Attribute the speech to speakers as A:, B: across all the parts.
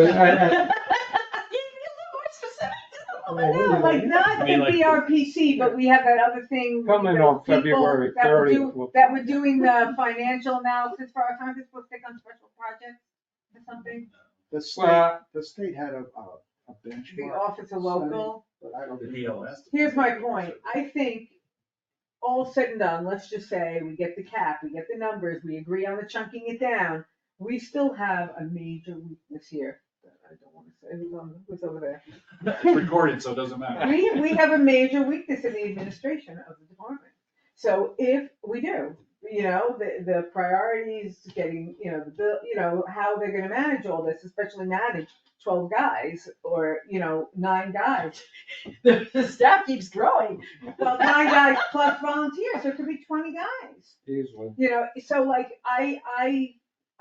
A: But I, I,
B: No, like not
C: I mean, like-
B: NBRPC, but we have that other thing.
A: Coming
B: those
A: on
B: people
A: February
B: that were
A: 30th,
B: do-
A: we'll-
B: That were doing the financial analysis for our conference, we'll pick on special projects or something,
D: The state,
A: well,
D: the state had a, a a
B: the
D: benchmark,
B: office of local.
D: but I don't.
C: The BLS.
B: Here's my point, I think all said and done, let's just say we get the cap, we get the numbers, we agree on the chunking it down. We still have a major weakness here, that I don't wanna say, who's on, who's over there?
C: It's recorded, so it doesn't matter.
B: We, we have a major weakness in the administration of the department. So if we do, you know, the, the priorities, getting, you know, the bill, you know, how they're gonna manage all this, especially manage twelve guys or, you know, nine guys. The the staff keeps growing. Well, nine guys plus volunteers, so it could be twenty guys.
A: easily,
B: You know, so like, I, I,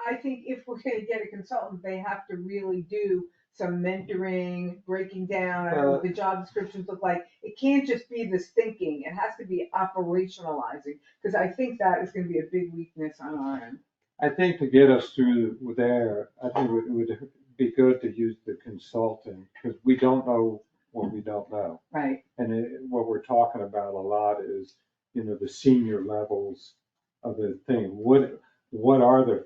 B: I think if we're gonna get a consultant, they have to really do some mentoring, breaking down, I don't know what the job descriptions look like. It can't just be this thinking, it has to be operationalizing, cause I think that is gonna be a big weakness on our end.
A: I think to get us through there, I think it would be good to use the consultant, because we don't know what we don't know.
B: Right.
A: And it- what we're talking about a lot is, you know, the senior levels of the thing. What, what are the,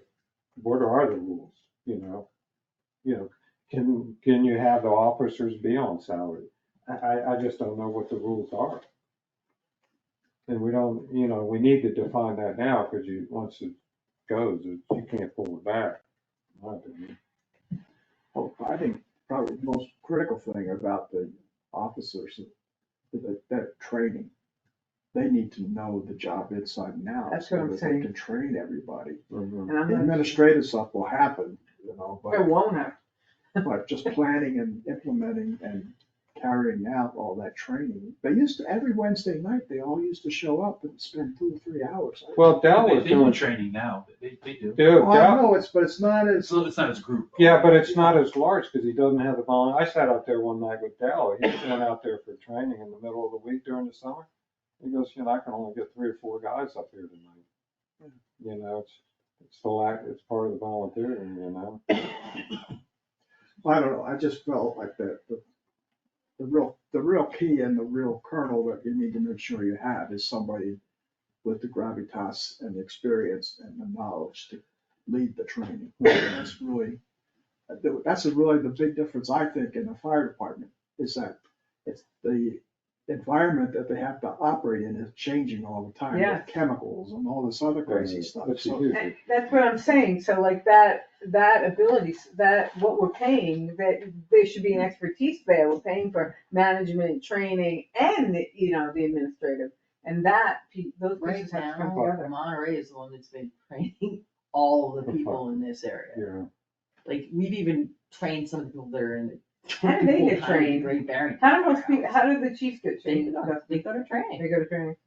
A: what are the rules, you know? You know, can, can you have the officers be on salary? I, I, I just don't know what the rules are. And we don't, you know, we need to define that now, because you, once it goes, you can't pull it back. in my opinion.
D: Well, Oh, I think probably the most critical thing about the officers, is that, that training. They need to know the job inside and out.
B: That's what I'm
D: So that
B: saying.
D: they can train everybody.
B: And I'm
D: The
B: not,
D: Administrative stuff will happen, you know,
B: it
D: but,
B: won't have,
D: but just planning and implementing and carrying out all that training. They used to, every Wednesday night, they all used to show up and spend two or three hours.
A: Well, Dell
C: They-
A: was
C: They do
A: doing,
C: training now, they, they do.
A: dude,
D: Well, I
A: Dell,
D: know it's, but it's not as.
C: It's, a little- it's not as group.
A: yeah, but it's not as large, because he doesn't have the volun, I sat out there one night with Dell, he went out there for training in the middle of the week during the summer. He goes, you know, I can only get three or four guys up here tonight.
D: Mm-hmm.
A: You know, it's, it's the lack, it's part of the volunteering, you know?
D: I don't know, I just felt like that, the, the real, the real key and the real kernel that you need to make sure you have is somebody with the gravitas and the experience and the knowledge to lead the training. That's really, that's really the big difference, I think, in the fire department, is that it's the environment that they have to operate in is changing all the time. with
B: Yes.
D: Chemicals and all this other crazy stuff,
A: But you
D: so.
A: do.
B: and that's what I'm saying, so like that, that ability, that, what we're paying, that there should be an expertise there, we're paying for management, training, and, the you know, the administrative. And that, pe- those
E: Right
B: pieces have to come together.
E: now, Monterey is the one that's been training all of the people in this area.
A: Yeah,
E: Like, we've even trained some of the people that are in the.
B: How do they get
E: full-time in
B: trained?
E: Great Barrington.
B: How do most people, how do the chiefs get
E: They
B: trained?
E: go to- they go to training.
B: They go to training.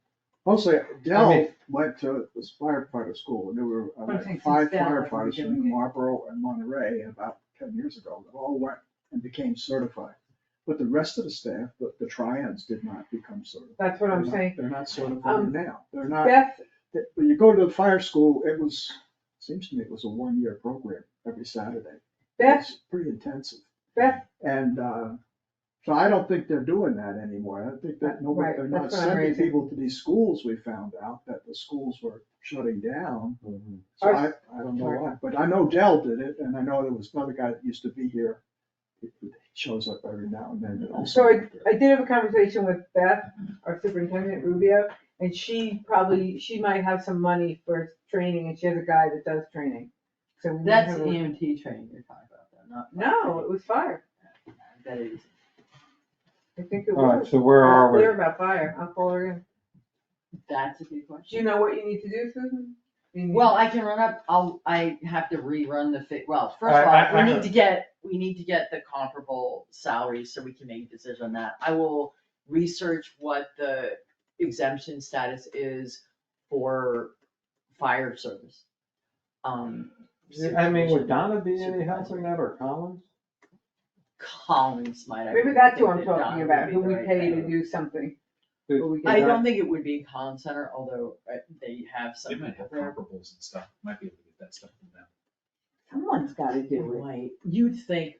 D: Mostly, Dell
A: mean-
D: went to this firefighter school, and there were uh,
B: But I think
D: five
B: since Dell hasn't been
D: firefighters
B: doing
D: from
B: it.
D: Marlboro and Monterey about ten years ago, that all went and became certified. But the rest of the staff, the, the triads did not become certified.
B: That's what
D: They're
B: I'm
D: not-
B: saying.
D: They're not certified
B: Um,
D: now, they're not,
B: Beth,
D: th- when you go to the fire school, it was, seems to me it was a one-year program every Saturday.
B: Beth,
D: It's Pretty intensive.
B: Beth,
D: And, uh, so I don't think they're doing that anymore. I think that nobody,
B: Right,
D: they're not
B: that's what I'm
D: sending
B: raising.
D: people to these schools. We found out that the schools were shutting down.
A: mhm.
D: So
B: Are-
D: I, I don't know why, but I know Dell did it and I know there was another guy that used to be here. He he shows up every now and then. that also
B: So
D: did it.
B: I did have a conversation with Beth, our superintendent Rubio, and she probably, she might have some money for training, and she has a guy that does training. So we might
E: That's
B: have
E: the
B: a-
E: EMT training you're talking about, though, not.
B: No, it was fire.
E: That is.
B: I think it
A: All right,
B: was.
A: so where
B: I was
A: are we?
B: Clear about fire. I'll call her in.
E: That's a good
B: Do
E: question.
B: you know what you need to do, Susan? You need-
E: Well, I can run up, I'll, I have to rerun the fit, well, first
A: I-
E: of
A: I-
E: all, we
A: I-
E: need to get, we need to get the comparable salaries so we can make a decision on that. I will research what the exemption status is for fire service. Um.
A: I mean, would
E: supervision.
A: Donna be any help in that or Collins?
E: Collins might. I
B: Maybe
E: would
B: that's who
E: think
B: I'm
E: that
B: talking
E: Donna
B: about,
E: would
B: who
E: be
B: we
E: the right
B: pay to
E: candidate.
B: do something.
A: Did-
B: But we
E: I
B: get-
E: don't think it would be Collins Center, although uh, they have some
C: They might
E: people
C: have
E: there.
C: comparables and stuff, might be able to get that stuff from them.
B: Someone's gotta do it.
E: Right, you'd think